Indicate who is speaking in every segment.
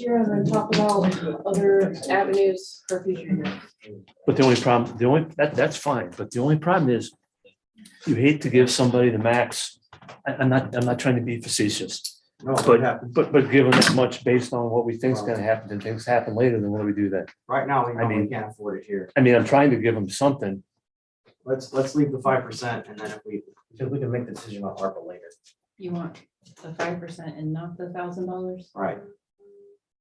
Speaker 1: year and then talk about other avenues for future years.
Speaker 2: But the only problem, the only, that, that's fine, but the only problem is you hate to give somebody the max. I, I'm not, I'm not trying to be facetious,
Speaker 3: No, it
Speaker 2: but,
Speaker 3: happens.
Speaker 2: but, but given that much based on what we think is gonna happen, then things happen later, then what do we do then?
Speaker 3: Right now, we
Speaker 2: I
Speaker 3: know we
Speaker 2: mean-
Speaker 3: can't afford it here.
Speaker 2: I mean, I'm trying to give them something.
Speaker 3: Let's, let's leave the five percent and then if we, if we can make the decision on ARPA later.
Speaker 4: You want the five percent and not the thousand dollars?
Speaker 3: Right.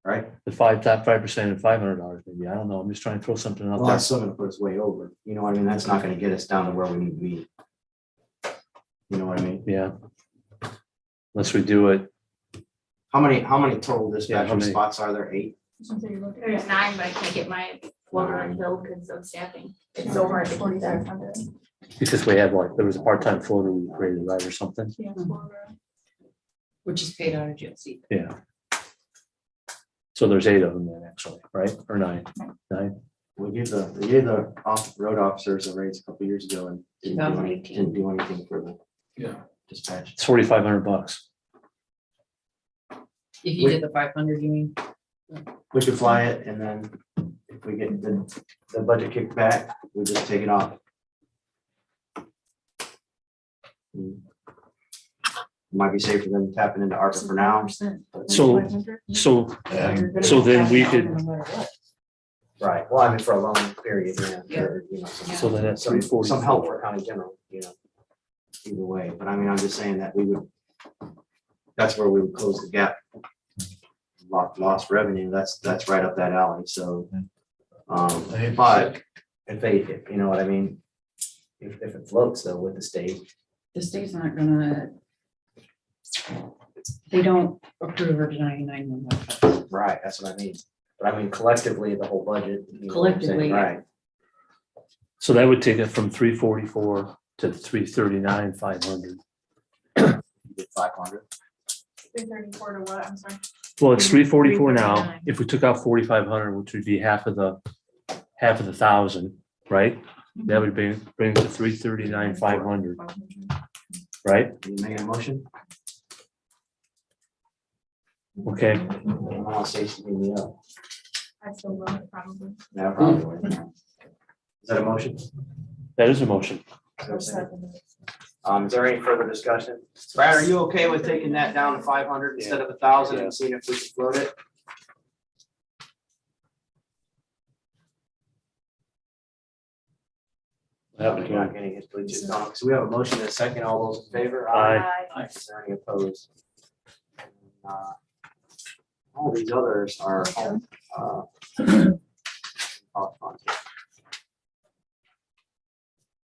Speaker 3: Right?
Speaker 2: The five, top five percent and five hundred dollars, maybe. I don't know. I'm just trying to throw something out
Speaker 3: Well,
Speaker 2: there.
Speaker 3: that's still gonna put us way over. You know, what I mean, that's not gonna get us down to where we need to be. You know what I mean?
Speaker 2: Yeah. Unless we do it,
Speaker 3: How many, how many total
Speaker 2: Yeah, how
Speaker 3: dispatcher
Speaker 2: many?
Speaker 3: spots are there? Eight?
Speaker 5: There's nine, but I can't get my
Speaker 3: Nine.
Speaker 5: one filled because of staffing. It's so hard to find that.
Speaker 2: because we had like, there was a part-time floater we created, right, or something.
Speaker 5: Hmm.
Speaker 4: Which is paid out of jail seat.
Speaker 2: Yeah. So there's eight of them then, actually, right? Or nine? Nine?
Speaker 3: We gave the, we gave the off, road officers a raise a couple years ago and didn't do any-
Speaker 4: 2018.
Speaker 3: didn't do anything for the
Speaker 6: Yeah.
Speaker 3: dispatch.
Speaker 2: It's forty-five hundred bucks.
Speaker 4: If you did the five hundred, you mean?
Speaker 3: We could fly it and then if we get the, the budget kicked back, we just take it off. Hmm. Might be safer than tapping into ARPA for now.
Speaker 2: So, so, so then we could,
Speaker 3: Right, well, I mean, for a long period, yeah, or, you know. some-
Speaker 2: so then that's
Speaker 3: Some,
Speaker 2: three forty.
Speaker 3: some help for county general, you know. Either way, but I mean, I'm just saying that we would, that's where we would close the gap. Lost, lost revenue, that's, that's right up that alley, so. Um, but if they, if- you know what I mean? If, if it floats though with the state,
Speaker 4: The state's not gonna. They don't approve or deny nine one one.
Speaker 3: right, that's what I mean. But I mean collectively, the whole budget. you know what I'm saying,
Speaker 4: Collectively, yeah.
Speaker 3: Right,
Speaker 2: So that would take it from three forty-four to three thirty-nine, five hundred.
Speaker 3: five hundred.
Speaker 5: Three thirty-four to what, I'm sorry?
Speaker 2: Well, it's three forty-four now.
Speaker 5: 339.
Speaker 2: If we took out forty-five hundred, which would be half of the, half of the thousand, right? That would be, bring it to three thirty-nine, five hundred, right?
Speaker 3: You make a motion?
Speaker 2: Okay,
Speaker 3: I'll say something, yeah.
Speaker 5: I still love it probably.
Speaker 3: No, probably. wouldn't. Is that a motion? Is
Speaker 2: that is a motion.
Speaker 3: that what I'm saying? Um, is there any further discussion? Brad,
Speaker 5: Brad,
Speaker 3: are
Speaker 5: are
Speaker 3: you okay with taking that down to five hundred instead of a thousand and seeing if we can float it? We're not getting his Bluetooth on, because we have a motion and a second. All those in favor?
Speaker 2: Aye.
Speaker 3: Is there any opposed? Uh, All these others are. uh, off on.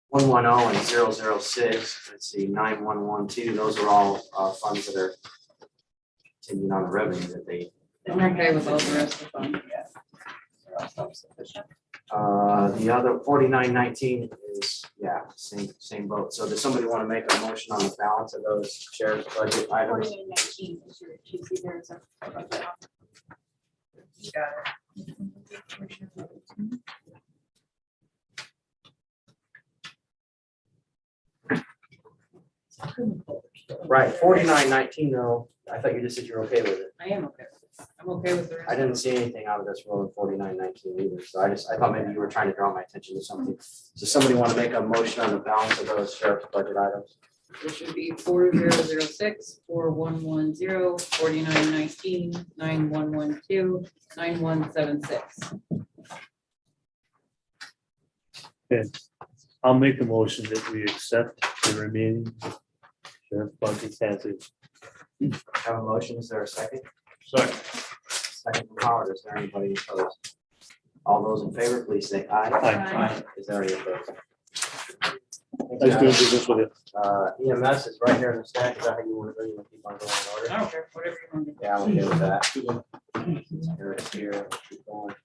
Speaker 3: One one oh and 006. zero six, let's see, nine one one two, those are all uh, funds that are contingent on the revenue that they.
Speaker 4: And that guy was all the rest of them.
Speaker 3: Uh, the other forty-nine nineteen is, yeah, same, same boat. So does somebody want to make a motion on the balance of those sheriff's budget items?
Speaker 5: Forty-nine nineteen is your, you see there's a.
Speaker 4: You got it.
Speaker 3: Right, forty-nine nineteen though, I thought you just said you're okay with it.
Speaker 4: I am okay. with it. I'm okay with the
Speaker 3: I
Speaker 4: rest.
Speaker 3: didn't see anything out of this roll in forty-nine nineteen either, so I just, I thought maybe you were trying to draw my attention to something. Does somebody want to make a motion on the balance of those sheriff's budget items?
Speaker 4: This should be four zero zero six, four one one zero, forty-nine nineteen, nine one one two, nine one seven six.
Speaker 2: I'll make the motion that we accept the remaining sheriff budget as is.
Speaker 3: Have a motion, is there a second?
Speaker 2: Sorry.
Speaker 3: Second from Howard, is there anybody opposed? All those in favor, please say aye.
Speaker 5: Aye.
Speaker 3: Is there any opposed?
Speaker 2: I just doing business with it.
Speaker 3: Uh, EMS is right here in the stack, is that how you want to, you want to keep on going in order?
Speaker 4: I don't care, whatever you want to do.
Speaker 3: Yeah, I'm good with that. Here, it's here, keep going.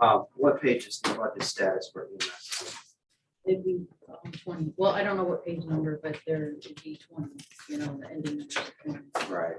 Speaker 3: Uh, what page is the budget status for E EMS?
Speaker 4: It'd be um, twenty, well, I don't know what page number, but there would be twenty, you know, the ending. number is 20.
Speaker 3: Right.